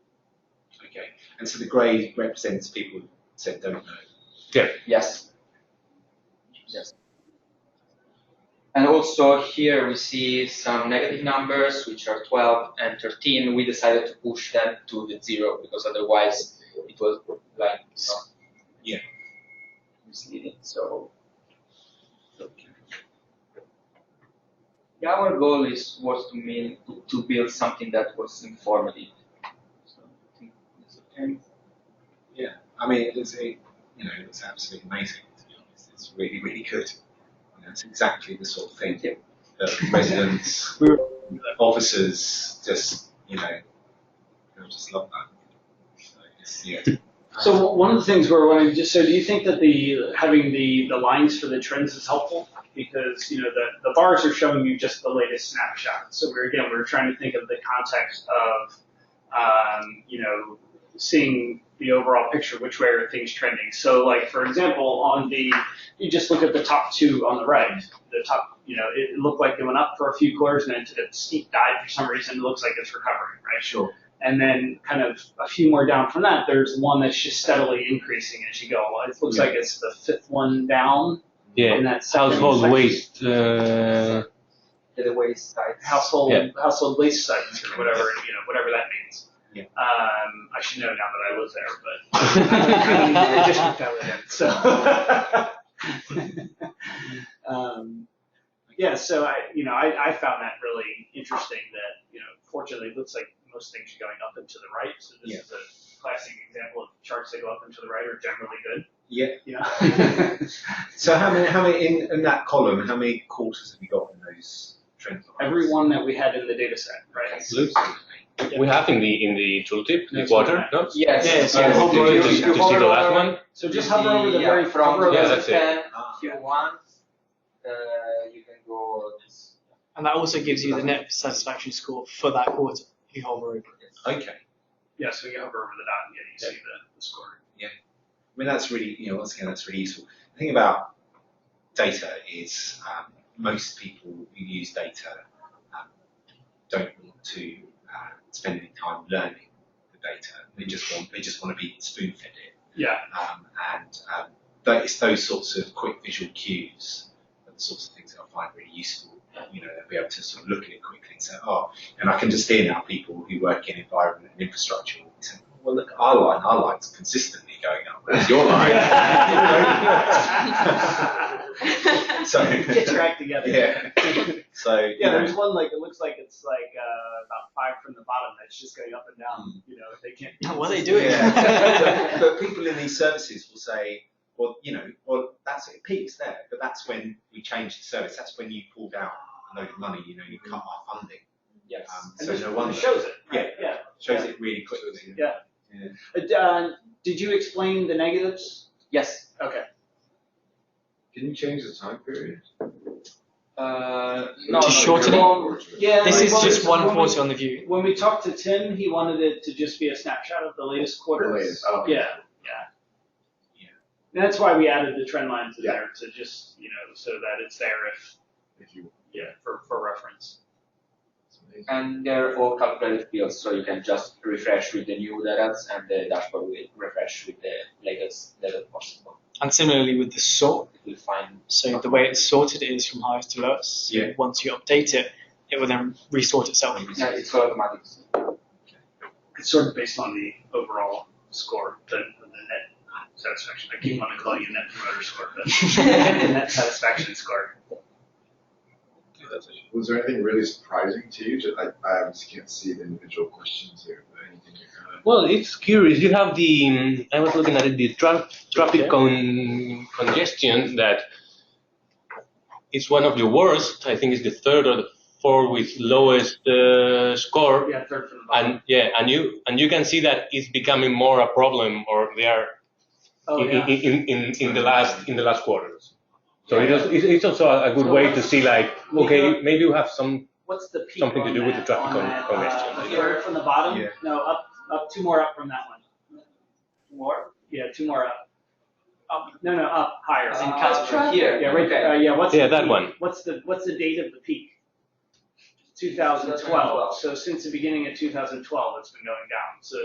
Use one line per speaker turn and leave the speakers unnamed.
Okay. And so the grey represents people who said don't know.
Yes. Yes. And also here we see some negative numbers, which are 12 and 13. We decided to push them to the zero because otherwise it was like not
Yeah.
misleading. So yeah, our goal is was to mean to, to build something that was informative. So I think that's okay.
Yeah. I mean, it's a, you know, it's absolutely amazing to be honest. It's really, really good. You know, it's exactly the sort of thing
Thank you.
that residents,
We were-
officers, just you know, they just love that. So it's, yeah.
So one of the things we're wondering, just so do you think that the, having the, the lines for the trends is helpful? Because, you know, the, the bars are showing you just the latest snapshot. So we're, again, we're trying to think of the context of, um, you know, seeing the overall picture, which way are things trending? So like, for example, on the, you just look at the top two on the right, the top, you know, it looked like it went up for a few quarters and then it did a steep dive for some reason. It looks like it's recovering, right?
Sure.
And then kind of a few more down from that, there's one that's just steadily increasing as you go. It looks
Yeah.
like it's the fifth one down.
Yeah,
In that second
household
section.
waste, uh,
to the waste sites.
Household
Yeah.
household waste sites or whatever you know whatever that means.
Yeah.
Um, I should know now that I was there, but I mean, I just
yeah,
looked at it in, so. um, yeah, so I you know I, I found that really interesting. That you know fortunately it looks like most things are going up and to the right. So this
Yeah.
is a classic example of charts that go up and to the right are generally good.
Yeah.
You know.
So how many, how many in, in that column? How many quarters have you got in those trend lines?
every one that we had in the data set, right?
Looks- We have in the in the tooltip the
Next
quarter,
one.
no?
Yes.
Yes,
Oh,
yes.
to-
You-
to,
you
to see
hover
the last
over-
one.
So just hover over the very
front
front.
Yeah,
row
that's it.
and
Ah,
if you want, uh, you can go. this-
And that also gives you the net satisfaction score for that quarter if you hover over it.
okay.
Yeah, so you hover over the dot and yeah, you see the, the score.
I mean, that's really, you know, once again, that's really useful. The thing about data is um, most people who use data um, don't want to uh, spend any time learning the data. They just want, they just want to be spoon fed it.
Yeah.
Um, and um, that it's those sorts of quick visual cues are the sorts of things that I find really useful. Um, You know, they'll be able to sort of look at it quickly and say, oh, and I can just hear now people who work in environment and infrastructure will be saying, well, look, our line, our line's consistently going up, whereas your line. so,
Get your act together.
yeah. So, you
Yeah,
know,
there's one like it looks like it's like uh, about five from the bottom that's just going up and down. You know, they can't.
Now, what are they doing?
Yeah. but, but people in these services will say, well, you know, well, that's it, it peaks there, but that's when we changed the service. That's when you pulled out a load of money, you know, you cut our funding.
Yes.
Um,
And
so
this
no
one
wonder.
shows it. right? Yeah.
Shows it really quickly.
Yeah. Uh, uh, did you explain the negatives?
Yes.
Okay.
Can you change the time period?
Uh, no.
Just
no,
shorten it?
no.
Yeah.
This
like,
is
well,
just
it's-
one
when we-
quarter on the view.
When we talked to Tim, he wanted it to just be a snapshot of the latest quarter.
The latest, oh.
Yeah, yeah. And that's why we added the trend lines in
Yeah.
there to just, you know, so that it's there if,
If you.
yeah, for, for reference.
And they're all calculated fields, so you can just refresh with the new data and the dashboard will refresh with the latest data possible.
And similarly with the sort.
It will find.
So the way it's sorted is from highest to lowest. So
Yeah.
Once you update it, it will then resort itself.
Yeah, it's all automatic.
It's sort of based on the overall score, the, the net satisfaction. I keep wanting to call you net promoter score, but the net satisfaction score.
Was there anything really surprising to you? Just, I, I obviously can't see the individual questions here, but anything you kind of.
Well, it's curious. You have the mm, I was looking at it, the tra- traffic con- congestion that it's one of the worst. I think it's the third or the fourth with lowest uh, score.
Oh, Yeah, third from the bottom.
And yeah, and you and you can see that it's becoming more a problem, or they are
Oh,
in,
yeah.
in, in, in, in the last in the last quarters. So it is, it's it's also a good way to see like okay maybe you have some
What's the peak
Something to
on
do with the
that-
traffic
on
con-
that,
congestion.
uh, Third from the bottom?
Yeah.
No, up, up, two more up from that one. Two more? Yeah, two more up. Up, no, no, up, higher.
As in
Uh,
Casper.
Here.
Yeah, right there, uh, yeah, what's the
Yeah, that
peak?
one.
What's the, what's the date of the peak? Two thousand twelve,
2012.
so since the beginning of two thousand twelve, it's been going down, so